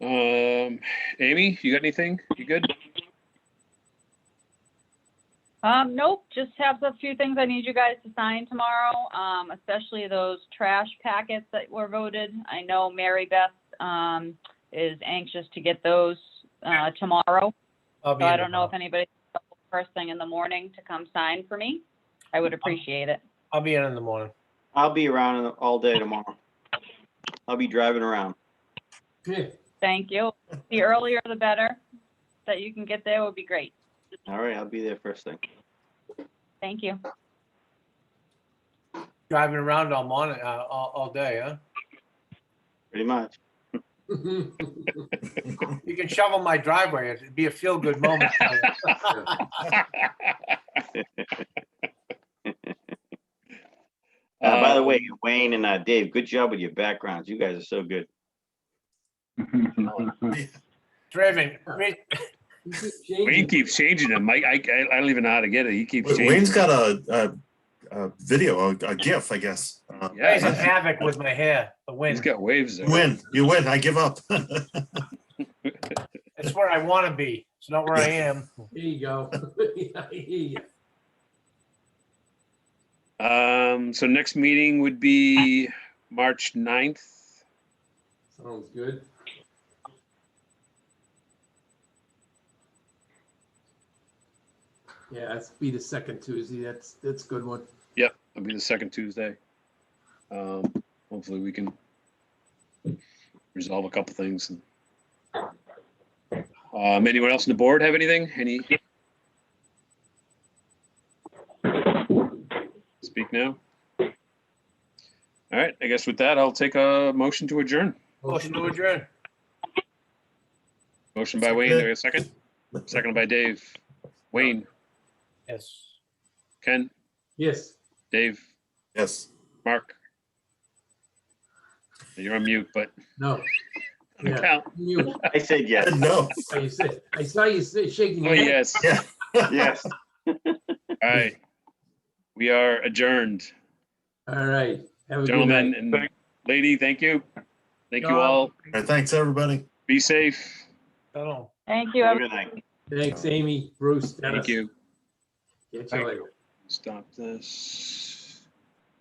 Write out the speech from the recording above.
Um, Amy, you got anything? You good? Um, nope, just have a few things I need you guys to sign tomorrow, um, especially those trash packets that were voted. I know Mary Beth, um, is anxious to get those, uh, tomorrow. I'll be So I in don't know if tomorrow. anybody, first thing in the morning to come sign for me. I would appreciate it. I'll be in in the morning. I'll be around in the- all day tomorrow. I'll be driving around. Good. Thank you. The earlier the better that you can get there would be great. All right, I'll be there first thing. Thank you. Driving around all morning, uh, all, all day, huh? Pretty much. You can shovel my driveway. It'd be a feel-good moment. for you. Uh, by the way, Wayne and uh, Dave, good job with your backgrounds. You guys are so good. Um, Driven, re- Wayne keeps changing them. Mike, I, I I don't even know how to get it. He keeps changing. Wayne's got a, a, a video, a, a GIF, I guess. Uh, raising Yeah, havoc with my hair, the he's wind. got waves you there. Win, you win. I give up. It's where I want to be. It's not where I am. There you go. Yeah, I hear ya. Um, so next meeting would be March 9th. Sounds good. Yeah, that's be the second Tuesday. That's, that's a good one. Yep, it'll be the second Tuesday. Um, hopefully we can resolve a couple things. and- Um, anyone else on the board have anything? Any? Speak now. All right, I guess with that, I'll take a motion to adjourn. Motion to adjourn. Motion by Wayne, there a second? Second by Dave. Wayne, Yes. Ken, Yes. Dave, Yes. Mark. You're on mute, but No. Yeah. count. You, I said yes. No. oh, you said, I saw you say- shaking. Oh, your head. yes. Yeah. Yes. All right. We are adjourned. All right. Have a good Gentlemen night. and lady, thank you. Thank you all. All right, thanks, everybody. Be safe. Don't know. Thank you. Have a everyone. good night. Thanks, Amy, Bruce, Dennis. Thank you. Catch you Thank later. Stop this.